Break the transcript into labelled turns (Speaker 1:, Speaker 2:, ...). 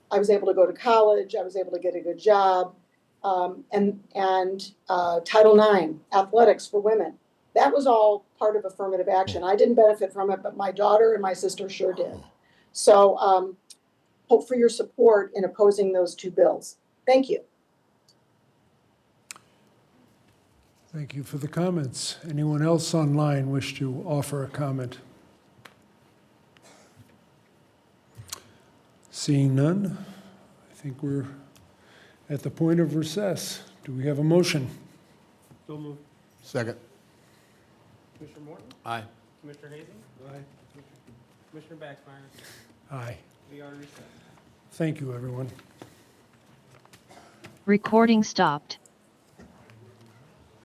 Speaker 1: I was able to go to college, I was able to get a good job, um, and, and, uh, Title IX, athletics for women. That was all part of affirmative action. I didn't benefit from it, but my daughter and my sister sure did. So, um, hope for your support in opposing those two bills. Thank you.
Speaker 2: Thank you for the comments. Anyone else online wish to offer a comment? Seeing none, I think we're at the point of recess. Do we have a motion?
Speaker 3: So moved.
Speaker 4: Second.
Speaker 3: Commissioner Morton?
Speaker 4: Aye.
Speaker 3: Commissioner Hazen? Aye. Commissioner Backsmyer?
Speaker 2: Aye.
Speaker 3: We are in recess.
Speaker 2: Thank you, everyone.
Speaker 5: Recording stopped.